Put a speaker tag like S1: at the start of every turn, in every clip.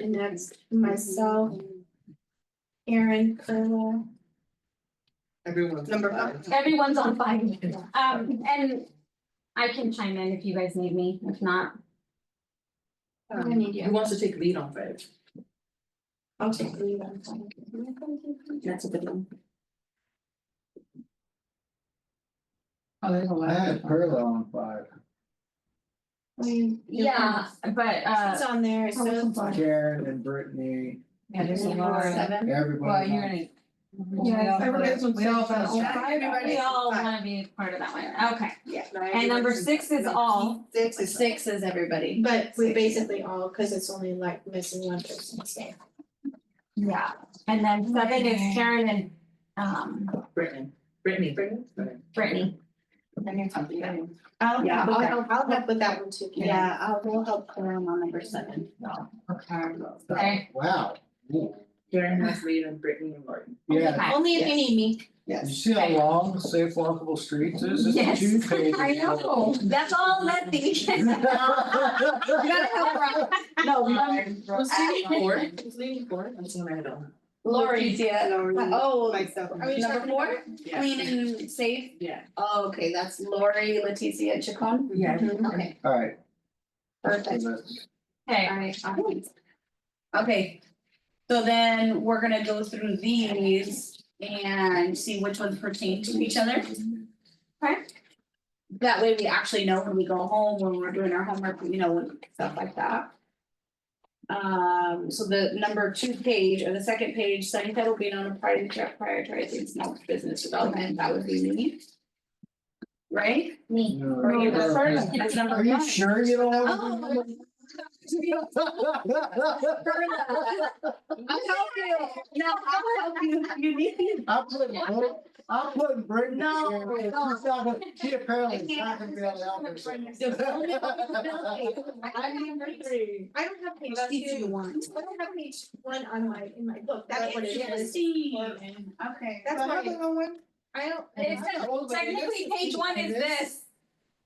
S1: And that's myself, Erin, Carla.
S2: Everyone's.
S3: Number
S2: five.
S4: Everyone's on fire. Um, and I can chime in if you guys need me, if not.
S1: I
S3: Um,
S1: need
S2: Who
S1: you.
S2: wants to take lead on five?
S1: I'll take lead on
S3: That's a good one.
S5: Oh, there's a lot.
S6: I had Perla on five,
S1: that.
S4: Yeah, but
S1: It's
S4: uh,
S1: on there, so. it's-
S6: Karen and Brittany,
S5: Yeah, there's a lot.
S1: Seven.
S5: Well,
S6: everybody.
S5: you're
S6: on-
S5: in.
S3: Yeah,
S2: everybody's on
S5: We all
S2: stage.
S5: felt-
S2: Yeah.
S4: we all wanna be part of that one, okay.
S3: Yeah.
S4: And number six is all,
S3: Six is. Six is everybody.
S1: But we basically all, cause it's only like missing one person, so.
S4: yeah, and then seven is Karen and um
S2: Brittany, Brittany.
S4: Brittany.
S1: I'll,
S3: Yeah,
S1: I'll
S3: okay.
S1: help, I'll help with that one too. Karen.
S3: Yeah, I'll, we'll help Karen on number seven.
S4: Okay.
S6: Wow. Ooh.
S2: Um, Karen has lead and Brittany and Lauren.
S6: Yeah,
S4: Okay.
S1: Only if you need me.
S6: you see how long safe walkable streets is, it's
S4: Yes.
S6: two pages.
S4: I know, that's all Lefty.
S3: No,
S2: Who's leading four? Who's leading four? That's what I had on.
S3: Lori's, yeah. Oh,
S2: Myself.
S3: are we number four?
S2: Yeah.
S3: Clean and safe?
S2: Yeah.
S3: Oh, okay, that's Lori, Leticia, and Chacon?
S2: Yeah.
S3: Okay,
S6: Alright.
S3: perfect.
S4: Okay,
S3: Alright, Okay, so then we're gonna go through these and see which ones pertain to each other. That way we actually know when we go home, when we're doing our homework, you know, and stuff like that. Um, so the number two page or the second page, study that will be on a priority, prioritizing small business development, that would be me. Right?
S4: me.
S6: Are
S4: Or you go first.
S3: That's number one.
S6: you sure you don't have?
S3: Oh.
S6: to do that?
S3: I'll help you. No, I'll help you. You need me.
S6: I'm putting, Brit- I'm putting Brittany
S3: No,
S6: here, and she's
S3: no.
S6: not gonna, she apparently
S3: I
S6: is
S3: can't.
S6: not gonna be able to help herself.
S1: I'm number three. I don't have page two.
S3: want.
S1: I don't have page one on my, in my book, that's what it is.
S3: Interesting. Okay.
S1: That's
S6: Am I
S1: why,
S6: the only one?
S1: I don't,
S4: It says technically page one is this,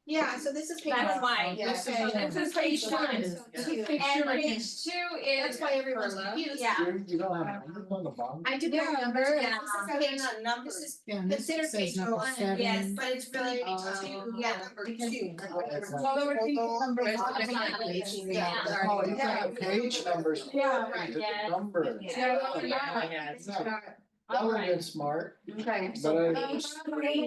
S1: yeah, so this is page one.
S4: that's why,
S1: Yeah,
S2: This is-
S1: okay.
S4: this is page one.
S1: So two.
S4: And page two is,
S1: That's why everyone's confused.
S4: yeah.
S6: You- You don't have, you on the bottom?
S1: I do have numbers, this
S4: Yeah.
S1: is page, this is considered page Oh. one, yes,
S4: seven.
S1: but it's really page two, yeah, number two.
S6: Oh, you got page numbers.
S1: Yeah,
S6: It's
S1: right.
S6: a
S4: Yeah.
S6: Number.
S4: Yeah.
S2: Yeah, yeah.
S1: It's not-
S6: That would have been smart,
S1: Uh,
S3: Okay.
S6: but I,
S3: Page three.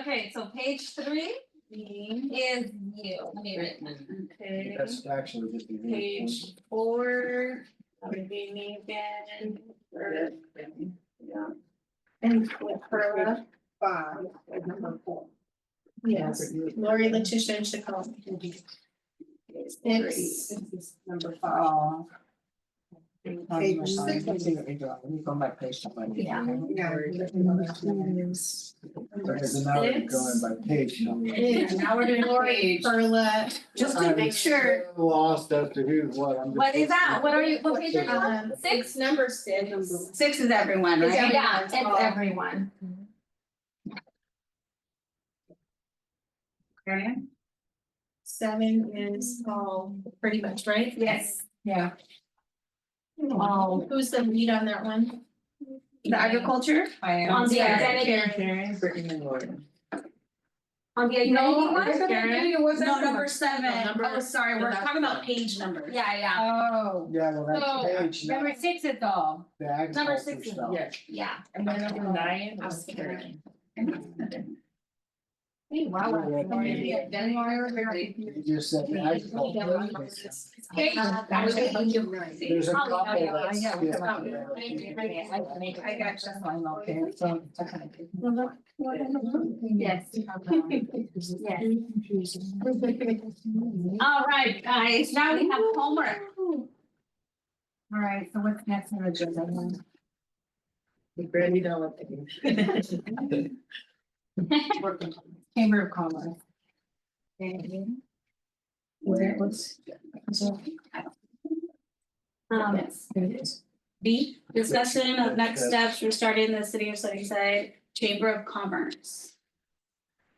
S4: Okay, so page three is you. Let me write that.
S3: Okay.
S6: that's actually just. a good
S3: Page four, that would be me again, or, yeah.
S1: And with Perla,
S2: Five, and number four.
S1: yes, Lori, Letitia, and Chacon. Six,
S2: This is number five.
S5: Oh.
S2: Page six.
S5: Let me see what we got. Let me go back page to my page.
S4: Yeah.
S2: Yeah.
S6: Because now we're going by page number.
S1: Yeah,
S3: Now we're doing Lori,
S1: Perla,
S3: just to make
S6: I'm
S3: sure.
S6: so Lost as to who's what, I'm just.
S4: What is that? What are you, what page are you on?
S1: um,
S4: Six?
S1: six, number six.
S3: Six is everyone,
S1: Is
S3: right?
S1: everyone.
S4: Yeah, it's everyone.
S3: Okay.
S1: Seven is all pretty much, right? Um,
S4: Yes.
S5: Yeah.
S4: All
S1: Who's the lead on that one?
S3: The agriculture?
S5: I am.
S4: on the
S1: Yeah.
S4: identity,
S2: Karen, Brittany and Lauren.
S4: on the identity
S3: No,
S4: one?
S3: No, number seven.
S2: number-
S3: Oh, sorry, we're
S2: the last
S3: talking about
S2: one.
S3: page numbers.
S4: Yeah, yeah,
S5: Oh.
S6: Yeah, well,
S5: So,
S6: that's page number,
S5: six is all.
S6: the
S4: number
S6: agriculture
S4: six is-
S6: stuff.
S2: Yes.
S4: yeah.
S2: And then number nine was
S3: Okay.
S2: Karen.
S4: Hey, wow.
S6: You just said the agriculture.
S4: Page-
S1: That was
S4: Okay.
S1: the right.
S6: There's a
S4: Oh,
S6: couple.
S4: yeah, yeah,
S6: that's-
S5: yeah, yeah.
S6: yeah.
S5: I got just one up there, so. it's okay.
S1: Uh-huh.
S4: Yes. Yes. All right, guys, now we have homework.
S5: All right, so what's next on the agenda?
S2: Brittany, don't let them.
S5: Chamber of Commerce.
S3: Where was?
S4: Um,
S3: B, discussion of next steps for starting the city of Sunnyside Chamber of Commerce.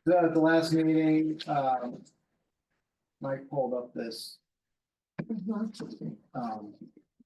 S6: So at the last meeting,
S4: Mm-hmm.
S6: um. Mike pulled up this. Um,